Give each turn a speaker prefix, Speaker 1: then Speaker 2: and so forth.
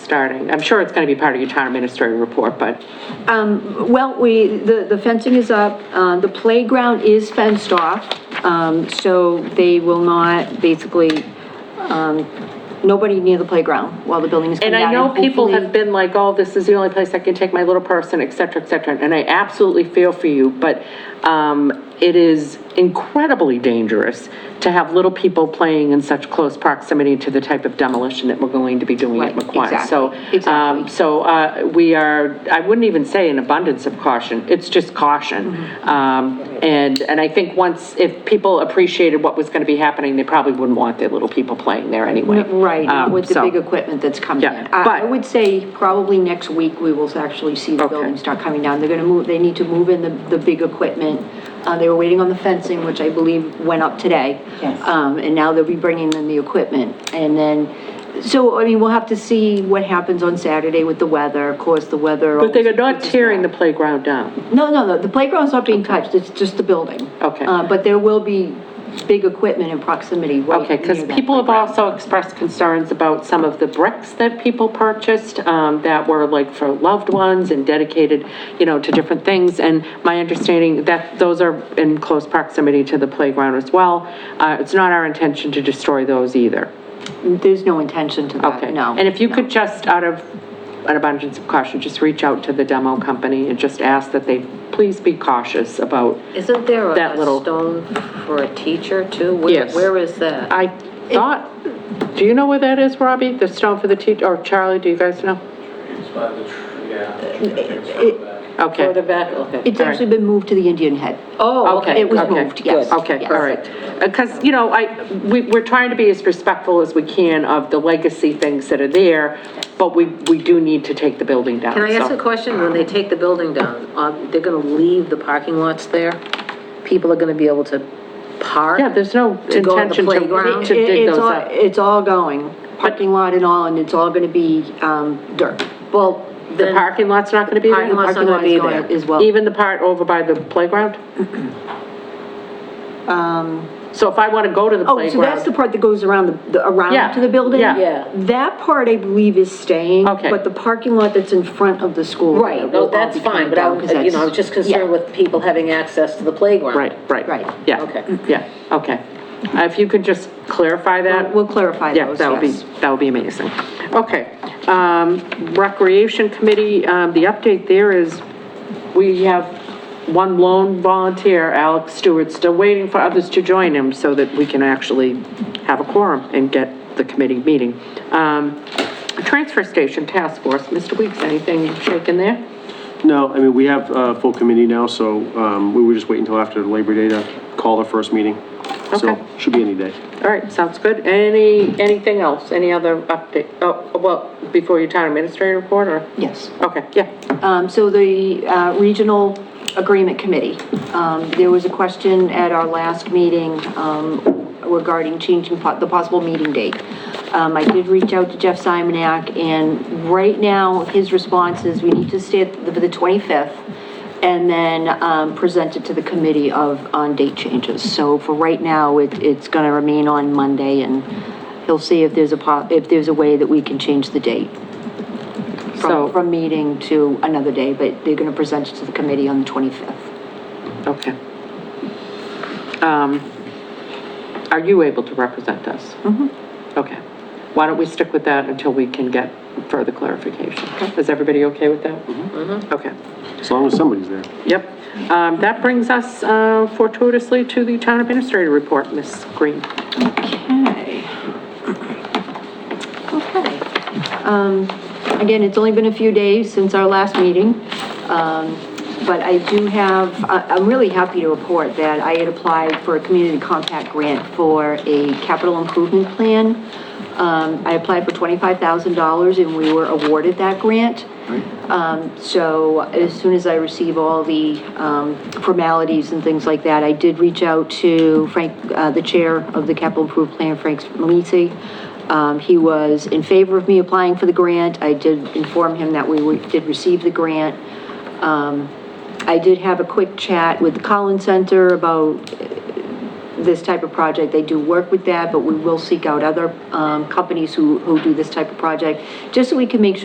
Speaker 1: starting? I'm sure it's going to be part of your town administrator report, but,
Speaker 2: Um, well, we, the, the fencing is up, uh, the playground is fenced off, um, so they will not basically, um, nobody near the playground while the building is coming
Speaker 1: and
Speaker 2: down.
Speaker 1: I know people
Speaker 2: hopefully-
Speaker 1: have been like, oh, this is the only place I can take my little person, et cetera, et cetera, and I absolutely feel for you, but, um, it is incredibly dangerous to have little people playing in such close proximity to the type of demolition that we're going to be doing at
Speaker 2: Right,
Speaker 1: McQuine. So,
Speaker 2: exactly, exactly.
Speaker 1: um, so, uh, we are, I wouldn't even say an abundance of caution, it's just caution.
Speaker 2: Mm-hmm.
Speaker 1: Um, and, and I think once, if people appreciated what was gonna be happening, they probably wouldn't want their little people playing there anyway.
Speaker 2: Right, not
Speaker 1: Um,
Speaker 2: with the
Speaker 1: so-
Speaker 2: big equipment that's coming
Speaker 1: Yeah,
Speaker 2: in. I, I
Speaker 1: but-
Speaker 2: would say probably next week, we will actually see the
Speaker 1: Okay.
Speaker 2: building start coming down. They're gonna move, they need to move in the, the big equipment. Uh, they were waiting on the fencing, which I believe went up today.
Speaker 3: Yes.
Speaker 2: Um, and now they'll be bringing in the equipment. And then, so, I mean, we'll have to see what happens on Saturday with the weather. Of course, the weather.
Speaker 1: But they're
Speaker 2: always
Speaker 1: not
Speaker 2: puts us
Speaker 1: tearing the
Speaker 2: back.
Speaker 1: playground down.
Speaker 2: No, no, no, the playground's not being touched, it's just the building.
Speaker 1: Okay.
Speaker 2: Uh, but there will be big equipment in proximity right
Speaker 1: Okay, because
Speaker 2: near that
Speaker 1: people have
Speaker 2: playground.
Speaker 1: also expressed concerns about some of the bricks that people purchased um, that were like for loved ones and dedicated, you know, to different things. And my understanding that those are in close proximity to the playground as well. Uh, It's not our intention to destroy those either.
Speaker 2: There's no intention to
Speaker 1: Okay.
Speaker 2: that, Uh, no.
Speaker 1: And if you
Speaker 2: no.
Speaker 1: could just, out of an abundance of caution, just reach out to the demo company and just ask that they please be cautious about,
Speaker 4: Isn't there a-
Speaker 1: That little-
Speaker 4: a stone for a teacher too? Where-
Speaker 1: Yes.
Speaker 4: Where is that?
Speaker 1: I thought, do you know where that is, Robbie? The stone for the teacher, or Charlie, do you guys know?
Speaker 5: It's by the, tr- yeah. it's
Speaker 2: it-
Speaker 5: by that.
Speaker 1: Okay.
Speaker 4: Further back, okay.
Speaker 2: It's actually been moved to the Indian Head.
Speaker 4: Oh,
Speaker 1: Okay,
Speaker 4: okay.
Speaker 2: It was
Speaker 1: okay,
Speaker 2: moved, yes.
Speaker 1: good. Okay,
Speaker 2: yes.
Speaker 1: all right. Because, you know, I, we, we're trying to be as respectful as we can of the legacy things that are there, but we, we do need to take the building down,
Speaker 4: Can I ask
Speaker 1: so-
Speaker 4: a question? When they take the building down, um, they're gonna leave the parking lots there? People are gonna be able to park?
Speaker 1: Yeah, there's no
Speaker 4: To go on the
Speaker 1: intention to,
Speaker 4: playground?
Speaker 1: to
Speaker 2: It-
Speaker 1: dig
Speaker 2: It's
Speaker 1: those
Speaker 2: all,
Speaker 1: up.
Speaker 2: it's all going, parking lot and all, and it's all gonna be, um, dirt. Well,
Speaker 1: The parking lot's not gonna be there?
Speaker 4: Parking lot's not gonna
Speaker 2: lot is
Speaker 4: be
Speaker 2: going
Speaker 4: there.
Speaker 2: As well.
Speaker 1: Even the part over by the playground? So if I wanna go to the
Speaker 2: Um, Oh, so that's the
Speaker 1: playground,
Speaker 2: part that goes around, the- the,
Speaker 1: Yeah,
Speaker 2: around to the building?
Speaker 1: yeah.
Speaker 4: Yeah.
Speaker 2: That part, I believe, is staying.
Speaker 1: Okay.
Speaker 2: But the parking lot that's in front of the school.
Speaker 4: Right,
Speaker 2: will
Speaker 4: no,
Speaker 2: all
Speaker 4: that's
Speaker 2: be coming
Speaker 4: fine, but I,
Speaker 2: down, 'cause
Speaker 4: was- you know, I was
Speaker 2: that's-
Speaker 4: just concerned
Speaker 2: yeah.
Speaker 4: with people having access to the playground.
Speaker 1: right, right.
Speaker 2: Right. Mm-hmm.
Speaker 1: Yeah.
Speaker 4: Okay.
Speaker 1: Yeah, okay. Uh, If you could just clarify that?
Speaker 2: We'll clarify
Speaker 1: Yeah,
Speaker 2: those,
Speaker 1: that would be,
Speaker 2: yes.
Speaker 1: that would be amazing. Okay. Um, Recreation Committee, um, the update there is we have one lone volunteer, Alex Stewart, still waiting for others to join him so that we can actually have a quorum and get the committee meeting. Um, Transfer Station Task Force, Mr. Weeks, anything shaking there?
Speaker 6: No, I mean, we have a full committee now, so um, we were just waiting until after Labor Day to call the first meeting.
Speaker 1: Okay.
Speaker 6: So, should be any day.
Speaker 1: All right, sounds good. Any, anything else? Any other update? Oh, well, before your town administrator report or?
Speaker 2: Yes.
Speaker 1: Okay, yeah.
Speaker 2: Um, so the, uh, Regional Agreement Committee, um, there was a question at our last meeting, um, regarding changing po- the possible meeting date. Um, I did reach out to Jeff Simonak, and right now, his response is we need to stay at the, the twenty-fifth, and then, um, present it to the committee of, on date changes. So for right now, it, it's gonna remain on Monday, and he'll see if there's a po, if there's a way that we can change the date
Speaker 1: So-
Speaker 2: from, from meeting to another day, but they're gonna present it to the committee on the 25th.
Speaker 1: Okay. Um, Are you able to represent us? Mm-hmm. Okay. Why don't we stick with that until we can get further clarification? Is everybody okay with that? Mm-hmm. Okay.
Speaker 6: As long as somebody's there.
Speaker 1: Yep. Um, That brings us uh, fortuitously to the town administrator report, Ms. Green.
Speaker 2: Okay. Okay. Um, Again, it's only been a few days since our last meeting, um, but I do have, I- I'm really happy to report that I had applied for a community compact grant for a capital improvement plan. Um, I applied for $25,000 and we were awarded that grant. Um, So as soon as I receive all the um, formalities and things like that, I did reach out to Frank, uh, the chair of the capital improvement plan, Frank Melisi. Um, He was in favor of me applying for the grant. I did inform him that we were- did receive the grant. Um, I did have a quick chat with the Collins Center about uh, this type of project. They do work with that, but we will seek out other um, companies who, who do this type of project, just so we can make sure.